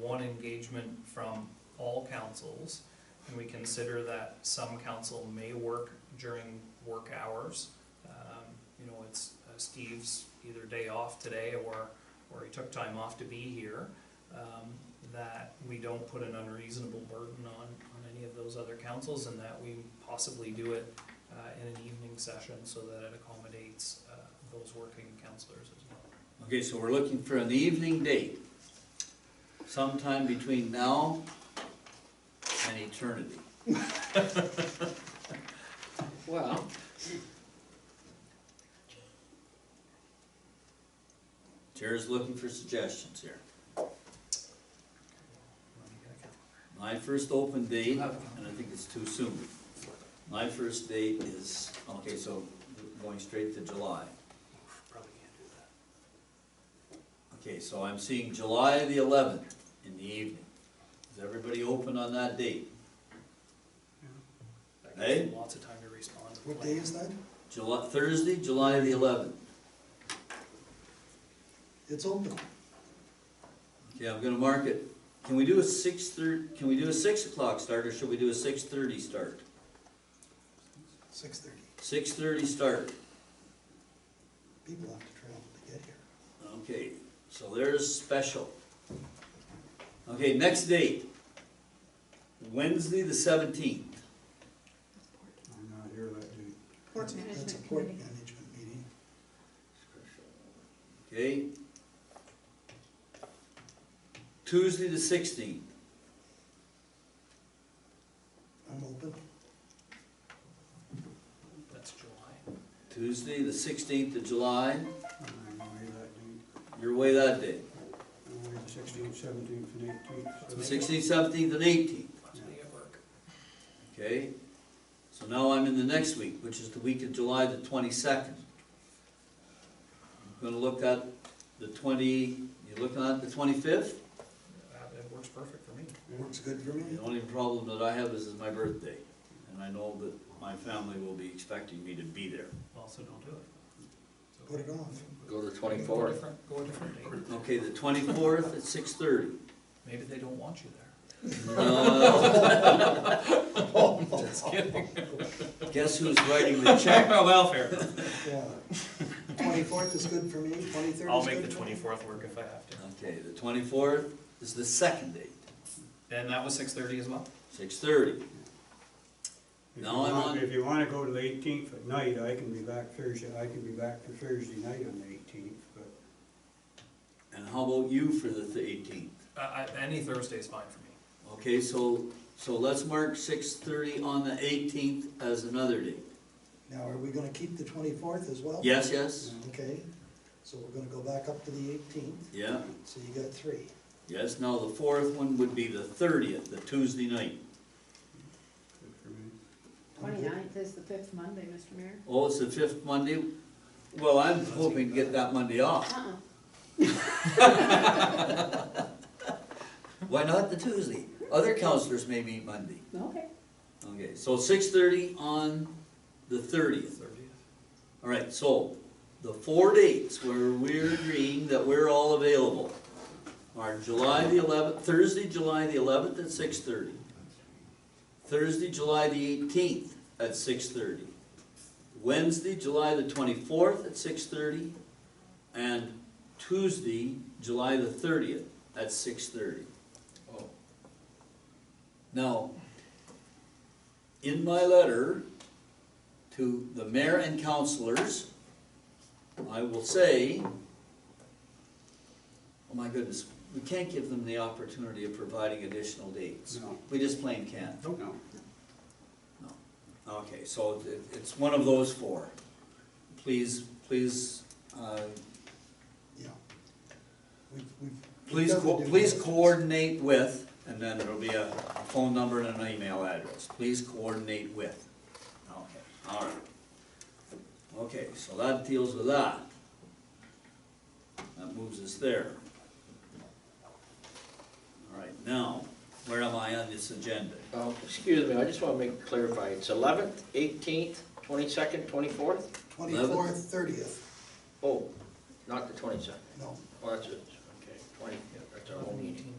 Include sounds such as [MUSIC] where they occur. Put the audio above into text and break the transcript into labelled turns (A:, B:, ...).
A: one engagement from all councils, and we consider that some council may work during work hours. Um, You know, it's uh, Steve's either day off today or, or he took time off to be here, um, that we don't put an unreasonable burden on, on any of those other councils, and that we possibly do it uh, in an evening session so that it accommodates uh, those working councilors as well.
B: Okay, so we're looking for an evening date, sometime between now and eternity. Well. Chair's looking for suggestions here.
A: Let me get a
B: My first open date, and I think it's too soon, my first date is, okay, so going straight to July.
A: cal- Probably can't do that.
B: Okay, so I'm seeing July the eleventh in the evening. Is everybody open on that date?
A: That gives them
B: Hey?
A: Lots of time to respond. to the
C: What day
A: plan.
C: is that?
B: July, Thursday, July the eleventh.
C: It's open.
B: Okay, I'm gonna mark it. Can we do a six thir, can we do a six o'clock start or should we do a six thirty start?
C: Six thirty.
B: Six thirty start.
C: People have to travel to get here.
B: Okay, so there's special. Okay, next date. Wednesday the seventeenth.
C: I'm not here that day.
D: Port
C: That's a
D: Management
C: port
D: Committee.
C: management meeting.
B: Okay. Tuesday the sixteenth.
C: I'm open.
A: That's July.
B: Tuesday, the sixteenth of July, you're away that day.
C: Sixteenth, seventeenth, and eighteenth.
B: Sixteenth, seventeenth, and eighteenth,
A: Last day of work.
B: okay? So now I'm in the next week, which is the week of July the twenty-second. I'm Gonna look at the twenty, you looking at the twenty-fifth?
A: That that works perfect for me.
C: Works good for me.
B: The only problem that I have is it's my birthday, and I know that my family will be expecting me to be there.
A: Also, don't do it. So-
C: Put it off.
E: Go to
A: Go a
E: twenty-fourth.
A: different- Go a different date.
B: Okay, the twenty-fourth at six-thirty.
A: Maybe they don't want you there. [LAUGHS]
B: Uh,
C: Just
A: [LAUGHS]
B: Guess who's writing the check?
A: Welfare.
C: Twenty-fourth is good for me, twenty-third is good.
A: I'll make the
C: for me.
A: twenty-fourth work if I have to.
B: Okay, the twenty-fourth is the second date,
A: And that was six-thirty as well?
B: six-thirty.
F: If
B: No,
F: you
B: I'm
F: want-
B: on-
F: If you wanna go to the eighteenth at night, I can be back Thursday, I can be back for Thursday night on the eighteenth, but
B: And how about you for the eighteenth?
A: Uh, I, any Thursday is fine for me.
B: Okay, so, so let's mark six-thirty on the eighteenth as another date.
C: Now, are we gonna keep the twenty-fourth as well?
B: Yes, yes?
C: Okay, so we're gonna go back up to the eighteenth,
B: Yeah,
C: so you got three.
B: yes, now the fourth one would be the thirtieth, the Tuesday night.
F: good for me.
D: Twenty-ninth is the fifth Monday, Mr. Mayor.
B: Oh, it's the fifth Monday? Well, I'm hoping to get that Monday off.
D: Uh-uh,
B: Why not the Tuesday? Other counselors may meet Monday.
D: okay.
B: Okay, so six-thirty on the thirtieth.
A: Thirtieth.
B: All right, so the four dates where we're agreeing that we're all available are July the eleventh, Thursday, July the eleventh at six thirty. Thursday, July the eighteenth at six thirty. Wednesday, July the twenty-fourth at six thirty. And Tuesday, July the thirtieth at six thirty. Now, in my letter to the mayor and councilors, I will say, oh my goodness, we can't give them the opportunity of providing additional dates.
F: No.
B: We just plain can't.
F: No.
B: Okay, so it, it's one of those four. Please, please, uh,
C: Yeah. We've, we've.
B: please,
C: we've
B: co-
C: done the
B: please
C: due
B: coordinate with, and then there'll be a a phone number and an email address. Please coordinate with. Okay, all right. Okay, so that deals with that. That moves us there. All right, now, where am I on this agenda?
E: Um, excuse me, I just wanna make, clarify, it's eleventh, eighteenth, twenty-second, twenty-fourth?
C: Twenty-fourth, thirtieth,
E: Oh, not the twenty-second, Oh,
C: no,
E: well, that's it, okay, twenty, yeah, that's our whole meeting.